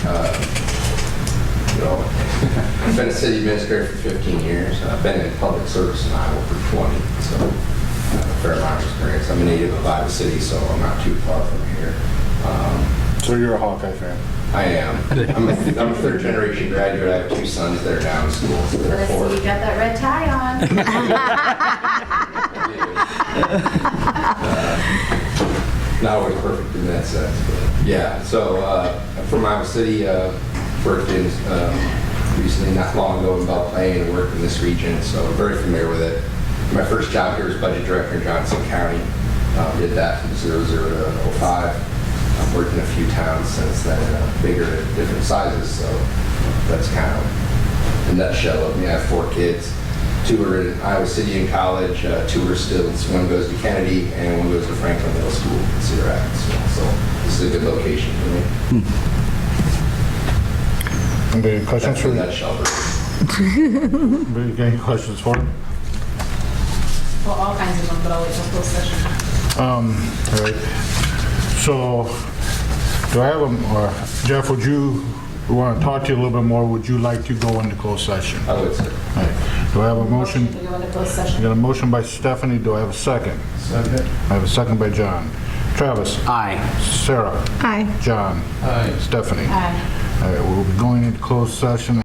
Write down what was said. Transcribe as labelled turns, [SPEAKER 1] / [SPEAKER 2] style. [SPEAKER 1] I've been a city administrator for 15 years, and I've been in public service in Iowa for 20, so I have a fair amount of experience. I'm a native of Iowa City, so I'm not too far from here. Um,
[SPEAKER 2] So you're a Hawkeye fan?
[SPEAKER 1] I am, I'm a I'm a third generation graduate, I have two sons that are now in school, so they're
[SPEAKER 3] Let's
[SPEAKER 1] four.
[SPEAKER 3] see, you got that red tie on.
[SPEAKER 1] Not always perfect in that sense, but yeah. So uh, I'm from Iowa City, uh, worked in um, recently not long ago in Belle Plaine and worked in this region, so I'm very familiar with it. My first job here was budget director in Johnson County. Um, did that from 00 to 05. I've worked in a few towns since then, uh, bigger, different sizes. So that's kind of the nutshell of me. I have four kids. Two are in Iowa City in college, uh, two are still, one goes to Kennedy and one goes to Franklin Middle School in Cedar Rapids. So this is a good location for me.
[SPEAKER 2] Anybody have questions
[SPEAKER 1] That's the
[SPEAKER 2] for,
[SPEAKER 1] nutshell.
[SPEAKER 2] anybody got any questions for him?
[SPEAKER 3] Well, all kinds of them, but I'll wait till closed session.
[SPEAKER 2] Um, all right. So, do I have a, or Jeff, would you, we want to talk to you a little bit more, would you like to go into closed session?
[SPEAKER 1] I would say.
[SPEAKER 2] All right. Do I have a motion?
[SPEAKER 3] We go into closed
[SPEAKER 2] I
[SPEAKER 3] session.
[SPEAKER 2] got a motion by Stephanie, do I have a second?
[SPEAKER 1] Second.
[SPEAKER 2] I have a second by John. Travis?
[SPEAKER 4] Aye.
[SPEAKER 2] Sarah?
[SPEAKER 5] Aye.
[SPEAKER 2] John?
[SPEAKER 1] Aye.
[SPEAKER 2] Stephanie?
[SPEAKER 3] Aye.
[SPEAKER 2] All right, we'll be going into closed session